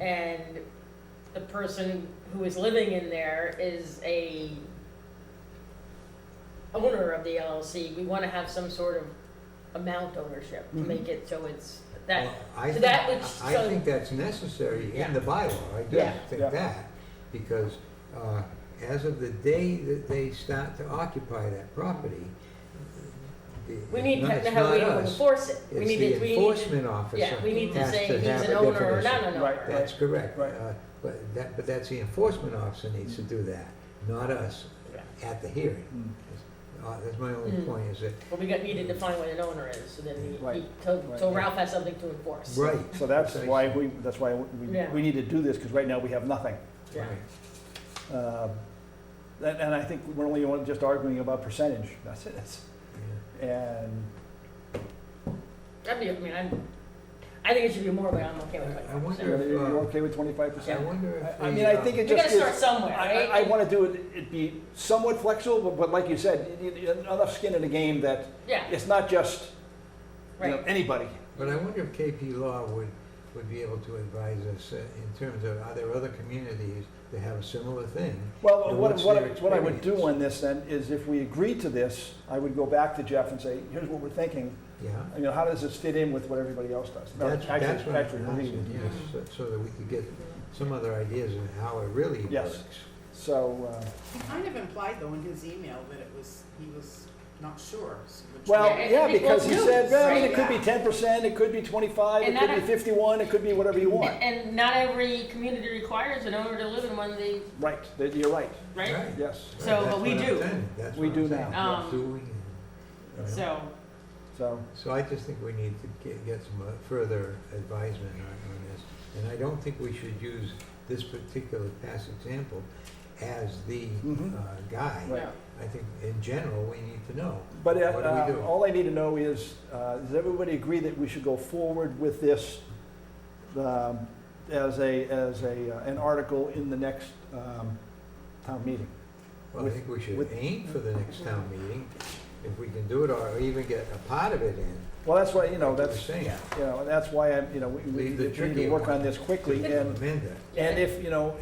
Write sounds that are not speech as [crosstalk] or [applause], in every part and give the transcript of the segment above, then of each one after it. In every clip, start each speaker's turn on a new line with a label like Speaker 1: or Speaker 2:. Speaker 1: and the person who is living in there is a owner of the LLC, we wanna have some sort of amount ownership to make it so it's that,
Speaker 2: Mm-hmm. Well, I
Speaker 1: so that
Speaker 2: think-
Speaker 1: which-
Speaker 2: I
Speaker 1: so-
Speaker 2: think that's necessary in the bylaw, I do
Speaker 1: Yeah.
Speaker 2: think
Speaker 3: Yeah.
Speaker 2: that, because uh, as of the day that they start to occupy that property, it-
Speaker 1: we need
Speaker 2: it's not-
Speaker 1: to know
Speaker 2: it's
Speaker 1: how we
Speaker 2: not us.
Speaker 1: enforce it. We
Speaker 2: It's
Speaker 1: need
Speaker 2: the
Speaker 1: to- we need to-
Speaker 2: enforcement officer
Speaker 1: Yeah, we need to
Speaker 2: has
Speaker 1: say
Speaker 2: to
Speaker 1: he's
Speaker 2: have
Speaker 1: an
Speaker 2: a
Speaker 1: owner or not
Speaker 2: definition.
Speaker 1: an
Speaker 3: Right,
Speaker 1: owner.
Speaker 2: That's correct.
Speaker 3: Right.
Speaker 2: Uh, But that, but that's the enforcement officer needs to do that, not us at the hearing.
Speaker 3: Mm.
Speaker 2: Uh, That's my only
Speaker 1: Mm.
Speaker 2: point, is that,
Speaker 1: But we got, need to define what an owner is, so then he- he,
Speaker 3: Right,
Speaker 1: so- so
Speaker 3: right.
Speaker 1: Ralph has something to enforce.
Speaker 2: right.
Speaker 3: So that's
Speaker 2: Precisely.
Speaker 3: why we, that's why we,
Speaker 1: Yeah.
Speaker 3: we need to do this, because right now we have nothing.
Speaker 1: Yeah.
Speaker 2: Right.
Speaker 3: Uh, And, and I think we're only on- just arguing about percentage, that's it.
Speaker 2: Yeah.
Speaker 3: And,
Speaker 1: That'd be, I mean, I'm, I think it should be more, but I'm okay with
Speaker 2: I- I
Speaker 1: twenty-five
Speaker 3: you know,
Speaker 2: wonder-
Speaker 1: percent.
Speaker 3: you're you're
Speaker 2: Uh,
Speaker 3: okay with twenty-five
Speaker 2: I
Speaker 3: percent?
Speaker 2: wonder if.
Speaker 3: I
Speaker 2: the,
Speaker 3: mean, I
Speaker 2: uh,
Speaker 3: think
Speaker 1: We
Speaker 3: it
Speaker 1: gotta
Speaker 3: just
Speaker 1: start
Speaker 3: is, I,
Speaker 1: somewhere,
Speaker 3: I
Speaker 1: right?
Speaker 3: I wanna do it, it be somewhat flexible, but, but like you said, you need enough skin in the game that
Speaker 1: Yeah,
Speaker 3: it's not just, you know,
Speaker 1: right.
Speaker 3: anybody.
Speaker 2: But I wonder if KP Law would, would be able to advise us uh, in terms of, are there other communities that have a similar thing?
Speaker 3: Well,
Speaker 2: And
Speaker 3: what,
Speaker 2: what's
Speaker 3: what,
Speaker 2: their
Speaker 3: I- what I would do
Speaker 2: experience?
Speaker 3: on this then is if we agree to this, I would go back to Jeff and say, here's what we're thinking.
Speaker 2: Yeah?
Speaker 3: You know, how does this fit in with what everybody else does? No,
Speaker 2: That's,
Speaker 3: actually-
Speaker 2: that's what I'm
Speaker 3: actually, we-
Speaker 2: asking, yes, so- so that we could get some other ideas of how it really
Speaker 3: Yes.
Speaker 2: works.
Speaker 3: So, uh,
Speaker 4: He kind of implied though in his email that it was, he was not sure. so which
Speaker 3: well,
Speaker 1: I
Speaker 4: way-
Speaker 3: yeah,
Speaker 1: think
Speaker 3: because
Speaker 1: we'll
Speaker 3: he
Speaker 1: do
Speaker 3: said, well, I mean,
Speaker 4: right,
Speaker 3: it could be
Speaker 4: yeah.
Speaker 3: ten percent, it could be twenty-five, it
Speaker 1: And
Speaker 3: could
Speaker 1: that-
Speaker 3: be fifty-one, it could be whatever you
Speaker 1: [laughs]
Speaker 3: want.
Speaker 1: And not every community requires an owner to live in one, they,
Speaker 3: Right, that- you're right,
Speaker 1: right?
Speaker 3: yes.
Speaker 1: So,
Speaker 2: Right,
Speaker 1: but we
Speaker 2: that's what I'm
Speaker 1: do.
Speaker 2: saying, That's
Speaker 3: We
Speaker 2: what I'm
Speaker 3: do
Speaker 2: saying,
Speaker 1: now.
Speaker 2: we're
Speaker 1: Um,
Speaker 2: doing it, you know?
Speaker 1: So,
Speaker 3: So,
Speaker 2: So I just think we need to get, get some uh, further advisement on, on this. And I don't think we should use this particular past example as the
Speaker 3: Mhm.
Speaker 2: uh, guide.
Speaker 3: Right.
Speaker 1: no.
Speaker 2: I think in general, we need to know.
Speaker 3: but uh,
Speaker 2: What do we
Speaker 3: uh,
Speaker 2: do?
Speaker 3: all I need to know is, uh, does everybody agree that we should go forward with this um, as a, as a, uh, an article in the next um, town meeting?
Speaker 2: Well, I
Speaker 3: with-
Speaker 2: think we should
Speaker 3: with-
Speaker 2: aim for the next town meeting, if we can do it, or even get a part of it in.
Speaker 3: Well, that's why, you know,
Speaker 2: like you were
Speaker 3: that's,
Speaker 2: saying.
Speaker 3: you know, and that's why I'm, you know, we, we
Speaker 2: Leave the
Speaker 3: need to- we need
Speaker 2: tricky
Speaker 3: to work
Speaker 2: one.
Speaker 3: on this quickly and
Speaker 2: Amend it.
Speaker 3: And if, you know,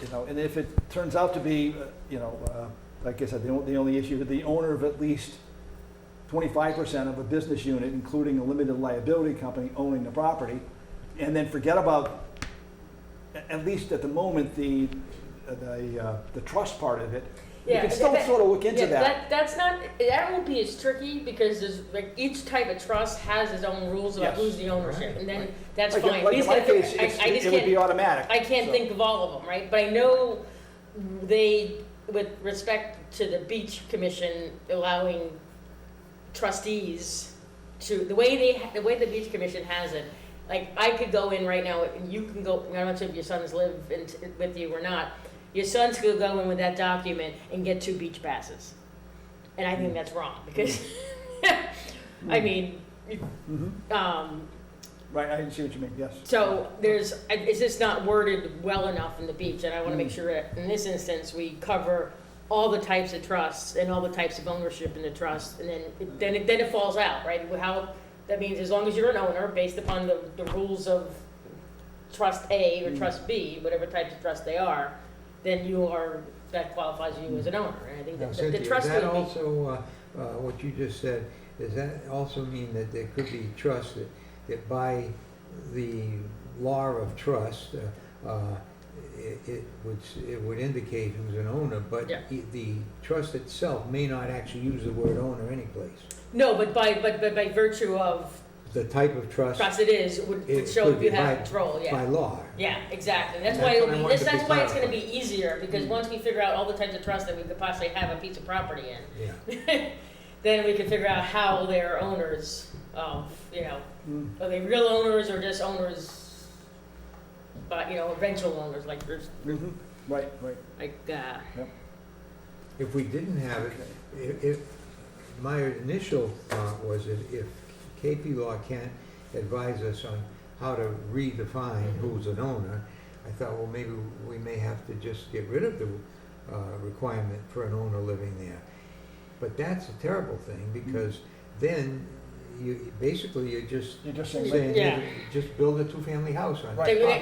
Speaker 3: you know, and if it turns out to be, uh, you know, uh, like I said, the only, the only issue, the owner of at least twenty-five percent of a business unit, including a limited liability company owning the property, and then forget about, a- at least at the moment, the, the, uh, the trust part of it. You
Speaker 1: Yeah,
Speaker 3: can still
Speaker 1: that-
Speaker 3: sort of look into
Speaker 1: Yeah,
Speaker 3: that.
Speaker 1: that, that's not, that won't be as tricky, because there's, like, each type of trust has its own rules about
Speaker 3: Yes.
Speaker 1: who's the ownership,
Speaker 2: Right,
Speaker 1: and then
Speaker 2: right.
Speaker 1: that's
Speaker 3: Like in-
Speaker 1: fine.
Speaker 3: Like
Speaker 1: We
Speaker 3: in
Speaker 1: just
Speaker 3: my
Speaker 1: gotta figure-
Speaker 3: case,
Speaker 1: I-
Speaker 3: it's-
Speaker 1: I just
Speaker 3: it would be
Speaker 1: can't-
Speaker 3: automatic.
Speaker 1: I can't
Speaker 3: so-
Speaker 1: think of all of them, right? But I know they, with respect to the beach commission allowing trustees to, the way they, the way the beach commission has it, like, I could go in right now, and you can go, I'm not sure if your sons live in, with you or not, your sons could go in with that document and get two beach passes. And I think that's wrong, because, [laughs] I mean,
Speaker 3: Mhm.
Speaker 1: um,
Speaker 3: Right, I see what you mean, yes.
Speaker 1: so there's, it's just not worded well enough in the beach, and I want to
Speaker 2: Mm.
Speaker 1: make sure that in this instance, we cover all the types of trusts and all the types of ownership in the trust, and then, then it, then it falls out, right? How, that means as long as you're an owner, based upon the, the rules of trust A
Speaker 2: Mm.
Speaker 1: or trust B, whatever types of trust they are, then you are, that qualifies you as an owner, and I think
Speaker 2: Mm. Now,
Speaker 1: that the- the
Speaker 2: Cynthia,
Speaker 1: trust
Speaker 2: that
Speaker 1: would be.
Speaker 2: also, uh, uh, what you just said, does that also mean that there could be trust that, that by the law of trust, uh, uh, it, it would, s- it would indicate who's an owner, but
Speaker 1: Yeah.
Speaker 2: i- the trust itself may not actually use the word owner anyplace.
Speaker 1: No, but by, but, but by virtue of
Speaker 2: The type of trust
Speaker 1: trust it is, would would
Speaker 2: It
Speaker 1: show
Speaker 2: could
Speaker 1: if you
Speaker 2: be
Speaker 1: have
Speaker 2: by-
Speaker 1: control, yeah.
Speaker 2: by law.
Speaker 1: Yeah, exactly. That's
Speaker 2: And
Speaker 1: why
Speaker 2: that's
Speaker 1: it'll
Speaker 2: what I
Speaker 1: be,
Speaker 2: wanted
Speaker 1: this-
Speaker 2: to be
Speaker 1: that's why it's gonna
Speaker 2: clarified.
Speaker 1: be easier, because once we figure out all the types of trusts that we could possibly have a piece of property in, [laughs]
Speaker 2: Yeah.
Speaker 1: then we can figure out how they're owners of, you know,
Speaker 3: Mm.
Speaker 1: are they real owners or just owners, but, you know, eventual owners, like, there's-
Speaker 3: Mhm. Right, right.
Speaker 1: like, uh,
Speaker 2: If we didn't have it, if, if, my initial thought was that if KP Law can't advise us on how to redefine who's an owner, I thought, well, maybe we may have to just get rid of the, uh, requirement for an owner living there. But that's a terrible thing,
Speaker 3: Mm-hmm.
Speaker 2: because then you, basically, you're just
Speaker 3: You're just saying.
Speaker 2: saying,
Speaker 1: Yeah.
Speaker 2: just build a two-family house on it.
Speaker 3: Right.
Speaker 1: they-